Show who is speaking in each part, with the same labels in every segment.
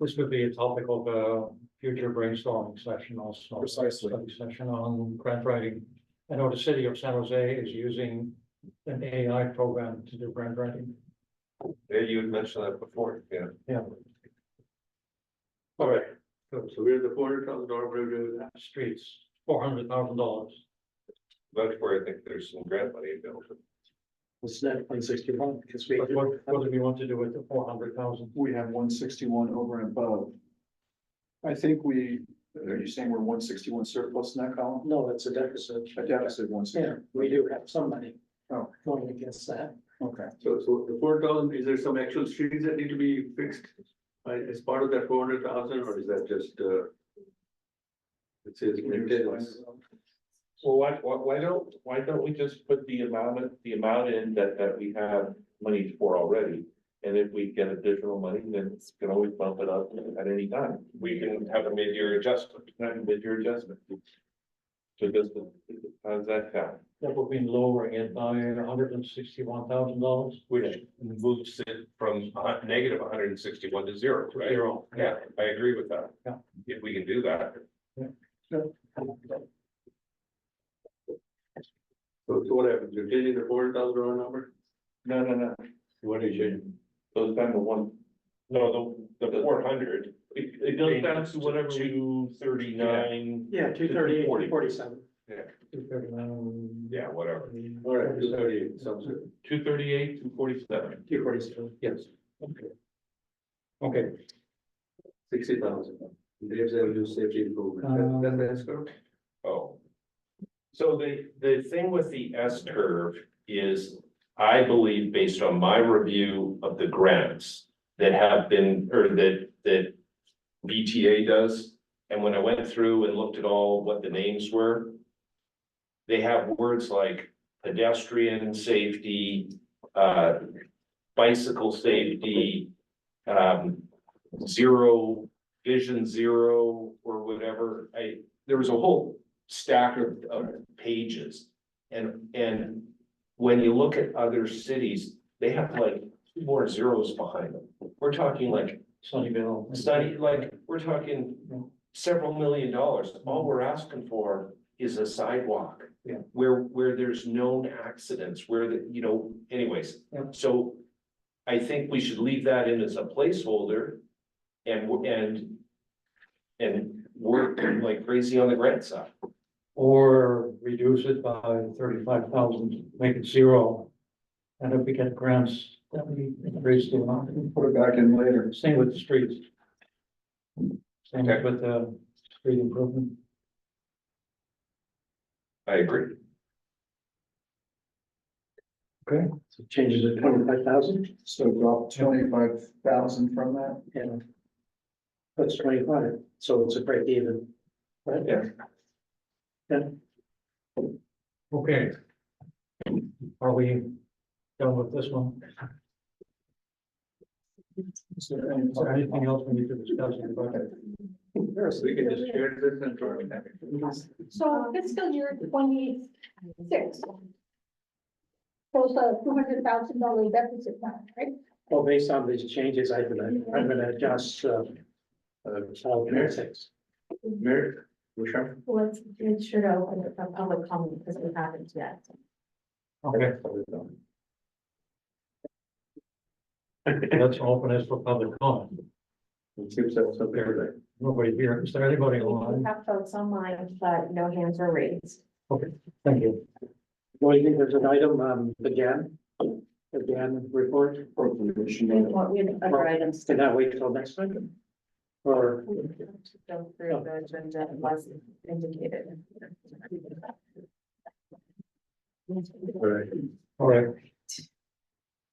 Speaker 1: This would be a topic of a future brainstorming session also.
Speaker 2: Precisely.
Speaker 1: Study Session on grant writing. I know the city of San Jose is using an AI program to do grant writing.
Speaker 3: Yeah, you had mentioned that before, yeah.
Speaker 1: Yeah.
Speaker 4: All right,
Speaker 1: Good.
Speaker 4: so we're at the four hundred thousand dollar bridge,
Speaker 1: Streets, four hundred thousand dollars.
Speaker 3: That's where I think there's some grant money available.
Speaker 2: It's not one sixty-one, because we,
Speaker 1: But what, what do we want to do with the four hundred thousand?
Speaker 2: we have one sixty-one over and above. I think we, are you saying we're one sixty-one surplus in that column?
Speaker 5: No, it's a deficit.
Speaker 2: A deficit one
Speaker 5: Yeah,
Speaker 2: sixty,
Speaker 5: we do have some money.
Speaker 2: Oh.
Speaker 5: Going against that.
Speaker 2: okay.
Speaker 4: so, so the four thousand, is there some actual streets that need to be fixed? Uh, as part of that four hundred thousand, or is that just, uh? It says maintenance,
Speaker 6: Well, why, why, why don't, why don't we just put the amount, the amount in that, that we have money for already? And if we get additional money, then it's can always bump it up at any time.
Speaker 3: We can have a mid-year adjustment.
Speaker 6: Not with your adjustment. So just, how's that sound?
Speaker 1: That would mean lowering it by hundred and sixty-one thousand dollars.
Speaker 3: Which moves it from a hun- negative one hundred and sixty-one to zero, right?
Speaker 1: Zero.
Speaker 3: Yeah, I agree with that.
Speaker 1: Yeah.
Speaker 3: If we can do that,
Speaker 4: so, so what happens, you're changing the four hundred thousand dollar number?
Speaker 6: No, no, no,
Speaker 4: What are you changing?
Speaker 6: goes down to one,
Speaker 3: no, the, the four hundred.
Speaker 6: it, it goes down to whatever. Two thirty-nine.
Speaker 5: Yeah, two thirty-eight,
Speaker 6: Forty.
Speaker 5: forty-seven.
Speaker 1: Two thirty-nine.
Speaker 3: Yeah, whatever.
Speaker 4: All right, two thirty, sounds good.
Speaker 6: Two thirty-eight, two forty-seven.
Speaker 5: Two forty-seven.
Speaker 1: Yes. Okay,
Speaker 4: Sixty thousand. Graves Avenue Safety Improvement,
Speaker 2: Um,
Speaker 4: That- that's, that's correct.
Speaker 3: Oh. So the, the thing with the S curve is, I believe, based on my review of the grants that have been, or that, that BTA does, and when I went through and looked at all what the names were, they have words like pedestrian safety, uh, bicycle safety, um, zero, vision zero, or whatever. I, there was a whole stack of, of pages. And, and when you look at other cities, they have like two more zeros behind them. We're talking like,
Speaker 1: Sunnyvale.
Speaker 3: study, like, we're talking several million dollars. All we're asking for is a sidewalk.
Speaker 1: Yeah.
Speaker 3: Where, where there's known accidents, where the, you know, anyways.
Speaker 1: Yeah.
Speaker 3: So I think we should leave that in as a placeholder and, w- and, and work like crazy on the grant side.
Speaker 1: Or reduce it by thirty-five thousand, make it zero. And if we get grants, then we increase the amount,
Speaker 2: Put it back in later.
Speaker 1: same with the streets. Same with the street improvement.
Speaker 3: I agree.
Speaker 5: So changes to twenty-five thousand,
Speaker 2: So drop twenty-five thousand from that.
Speaker 5: and that's twenty-five, so it's a break even. Right?
Speaker 3: Yeah.
Speaker 5: Yeah.
Speaker 1: Okay. Are we done with this one?
Speaker 2: Is there any-
Speaker 1: Is there anything else we need to discuss in the budget?
Speaker 4: Yes, we can just share this and try it.
Speaker 7: So fiscal year twenty-six. Shows a two hundred thousand dollar deficit now, right?
Speaker 5: Well, based on these changes, I'm gonna, I'm gonna adjust, uh,
Speaker 4: Uh,
Speaker 5: so six.
Speaker 4: Mayor, Bouchard?
Speaker 8: Let's make sure to open it for public comment because we haven't yet.
Speaker 1: Okay, let's open this for public comment.
Speaker 4: It seems that's something like.
Speaker 1: Nobody here. Is there anybody
Speaker 8: We
Speaker 1: online?
Speaker 8: have folks online, but no hands are raised.
Speaker 1: Thank you.
Speaker 5: Well, you think there's an item, um, again, again, report,
Speaker 8: We
Speaker 2: Appropriation.
Speaker 8: want, we have other items to
Speaker 5: can that wait till next time? Or,
Speaker 8: we have to go through the agenda as indicated.
Speaker 4: Right.
Speaker 1: All right.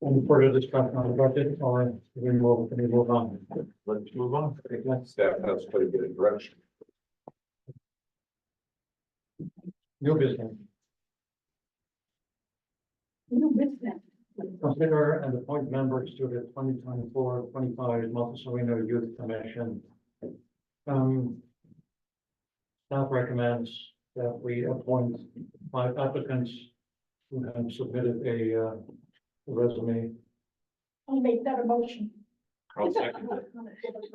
Speaker 1: Any further discussion on the budget or we move, we move on?
Speaker 4: Let's move on.
Speaker 3: Staff has quite a bit of direction.
Speaker 1: New business,
Speaker 7: New business.
Speaker 1: consider and appoint members to the 2024-25 Montezumino Youth Commission. Um. Staff recommends that we appoint five applicants who have submitted a uh, resume
Speaker 7: I'll make that a motion.
Speaker 3: I'll second that.